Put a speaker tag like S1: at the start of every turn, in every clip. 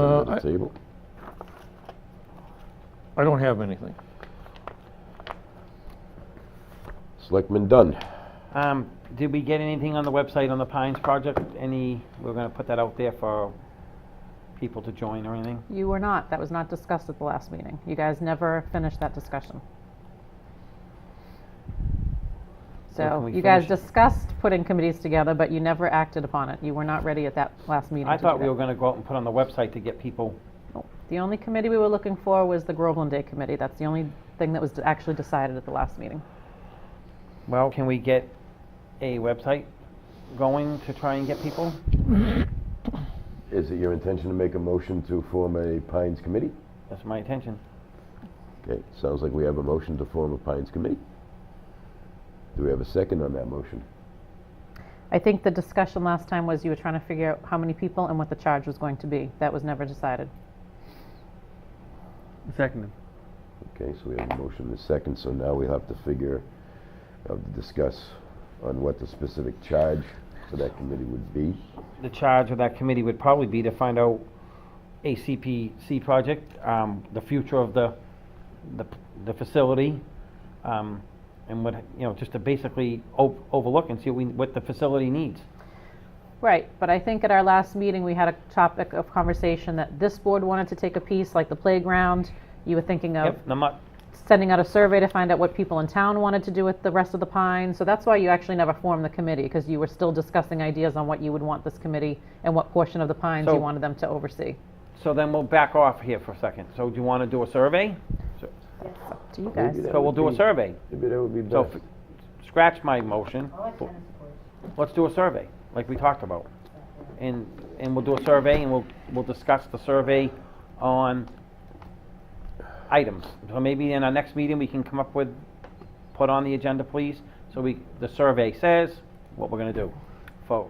S1: Uh,
S2: Another
S1: I-
S2: table.
S1: I don't have anything.
S2: Selectman Dunn.
S3: Um, did we get anything on the website on the Pines project? Any, we're gonna put that out there for people to join or anything?
S4: You were not. That was not discussed at the last meeting. You guys never finished that discussion.
S3: can
S4: So
S3: we
S4: you guys
S3: finish it?
S4: discussed putting committees together, but you never acted upon it. You were not ready at that last meeting
S3: I
S4: to do
S3: thought we
S4: that.
S3: were gonna go out and put on the website to get people,
S4: Nope. The only committee we were looking for was the Groveland Day Committee. That's the only thing that was d- actually decided at the last meeting.
S3: well, can we get a website going to try and get people?
S2: Is it your intention to make a motion to form a Pines committee?
S3: That's my intention.
S2: Okay, sounds like we have a motion to form a Pines committee. Do we have a second on that motion?
S4: I think the discussion last time was you were trying to figure out how many people and what the charge was going to be. That was never decided.
S5: Seconded.
S2: Okay, so we have a motion and a second, so now we have to figure, have to discuss on what the specific charge for that committee would be.
S3: The charge of that committee would probably be to find out a CPC project, um, the future of the, the, the facility, um, and what, you know, just to basically o- overlook and see what we, what the facility needs.
S4: Right, but I think at our last meeting, we had a topic of conversation that this board wanted to take a piece, like the playground. You were thinking of
S3: Yep, I'm not,
S4: sending out a survey to find out what people in town wanted to do with the rest of the pine. So that's why you actually never formed the committee, because you were still discussing ideas on what you would want this committee and what portion of the pines you
S3: So-
S4: wanted them to oversee.
S3: So then we'll back off here for a second. So do you want to do a survey?
S4: It's up to you
S2: Maybe
S4: guys.
S2: that
S3: So we'll
S2: would
S3: do a
S2: be-
S3: survey.
S2: Maybe that would be
S3: So
S2: best.
S3: f- scratch my motion.
S6: I like tennis courts.
S3: Let's do a survey, like we talked about. And, and we'll do a survey and we'll, we'll discuss the survey on items. So maybe in our next meeting, we can come up with, put on the agenda, please. So we, the survey says what we're going to do for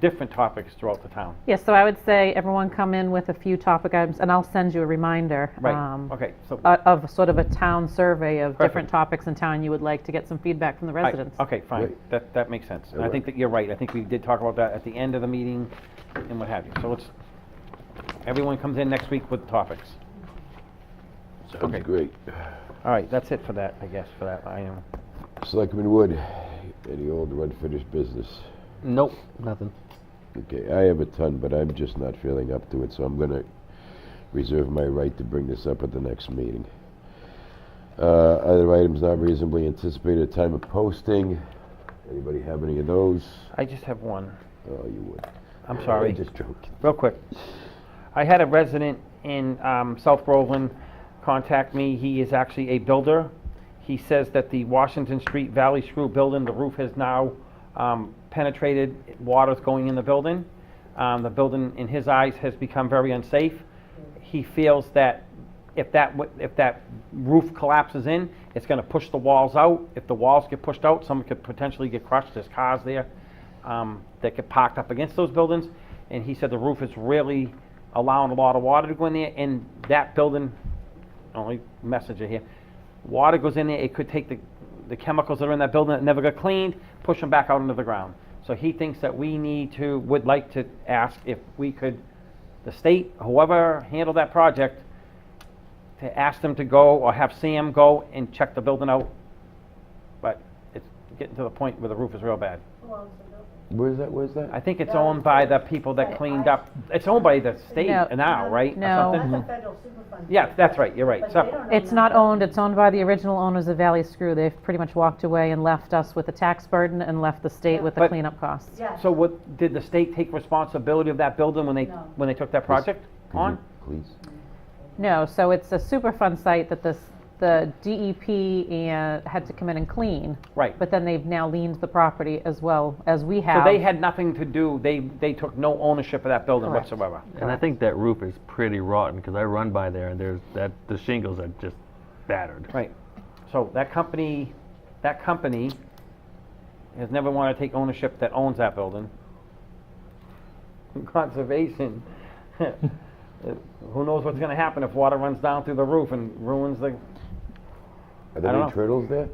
S3: different topics throughout the town.
S4: Yes, so I would say everyone come in with a few topic items, and I'll send you a reminder.
S3: Right,
S4: um,
S3: okay, so.
S4: o- Of sort of a town survey of different
S3: Perfect.
S4: topics in town you would like to get some feedback from the
S3: Right,
S4: residents.
S3: Okay, fine,
S2: Right.
S3: that, that makes sense. And I
S2: Right.
S3: think that you're right, I think we did talk about that at the end of the meeting and what have you. So it's, everyone comes in next week with topics. okay.
S2: Sounds great.
S3: All right, that's it for that, I guess, for that item.
S2: Selectman Wood, any old or unfinished business?
S5: Nope, nothing.
S2: Okay, I have a ton, but I'm just not feeling up to it, so I'm gonna reserve my right to bring this up at the next meeting. Uh, other items not reasonably anticipated, time of posting. Anybody have any of those?
S3: I just have one,
S2: Oh, you would.
S3: I'm sorry.
S2: I'm just joking.
S3: real quick. I had a resident in um, South Groveland contact me. He is actually a builder. He says that the Washington Street Valley Screw building, the roof has now um, penetrated, water's going in the building. Um, the building, in his eyes, has become very unsafe. He feels that if that, wa- if that roof collapses in, it's going to push the walls out. If the walls get pushed out, someone could potentially get crushed. There's cars there um, that get parked up against those buildings. And he said the roof is really allowing a lot of water to go in there, and that building, only messenger here, water goes in there, it could take the, the chemicals that are in that building that never got cleaned, push them back out into the ground. So he thinks that we need to, would like to ask if we could, the state, whoever handled that project, to ask them to go or have Sam go and check the building out. But it's getting to the point where the roof is real bad.
S6: Who owns the building?
S2: Where's that, where's that?
S3: I think it's owned by the people that cleaned up, it's owned by the state
S4: No.
S3: now, right? Or
S4: No.
S3: something? Mm-hmm.
S6: That's a federal superfund.
S3: Yeah, that's right, you're right.
S6: But they
S3: So-
S6: don't own
S4: It's
S6: that
S4: not
S6: building.
S4: owned, it's owned by the original owners of Valley Screw. They've pretty much walked away and left us with the tax burden and left the state with the
S3: But-
S4: cleanup costs.
S6: Yeah.
S3: So what, did the state take responsibility of that building when they,
S6: No.
S3: when they took that project
S2: Could you
S3: on?
S2: Please.
S4: No, so it's a Superfund site that this, the DEP and uh, had to come in and clean.
S3: Right.
S4: But then they've now leaned the property as well as we
S3: So
S4: have.
S3: they had nothing to do, they, they took no ownership of that building
S4: Correct.
S3: whatsoever.
S5: And I think that roof is pretty rotten because I run by there and there's that the shingles are just battered.
S3: Right. So that company, that company has never wanted to take ownership that owns that building. Conservation, who knows what's gonna happen if water runs down through the roof and ruins the,
S2: Are there
S3: don't
S2: any
S3: know.
S2: turtles there?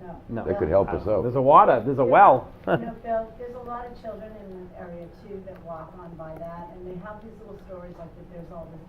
S6: No. no.
S3: No. Uh,
S2: That could help us
S3: There's
S2: out.
S3: a water, there's a well.
S6: You know, Bill, there's a lot of children in the area too that walk on by that, and they have these little stories like that there's all this